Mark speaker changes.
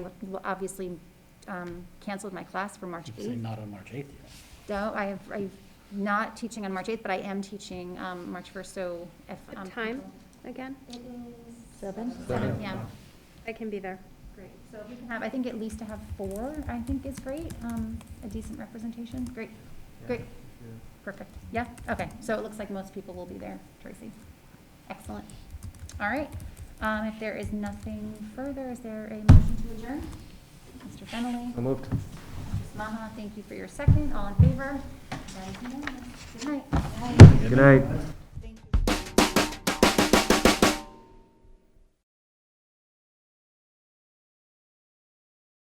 Speaker 1: obviously um, canceled my class for March
Speaker 2: You're
Speaker 1: 8th.
Speaker 2: saying not on March 8th. yeah.
Speaker 1: No, I have, I'm not teaching on March 8th, but I am teaching um, March 1st, so if.
Speaker 3: What
Speaker 1: um,
Speaker 3: time?
Speaker 1: people-
Speaker 3: Again,
Speaker 4: Seven?
Speaker 1: Seven, yeah.
Speaker 3: I can be there.
Speaker 1: Great, so if we can have, I think at least to have four, I think is great, um, a decent representation, great, great, perfect, yeah, okay, so it looks like most people will be there, Tracy. Excellent, all right, um, if there is nothing further, is there a motion to adjourn? Mr. Fennelly?
Speaker 5: So moved.
Speaker 1: Mrs. Maha, thank you for your second, all in favor? That is unanimous. Good night.
Speaker 5: Good night.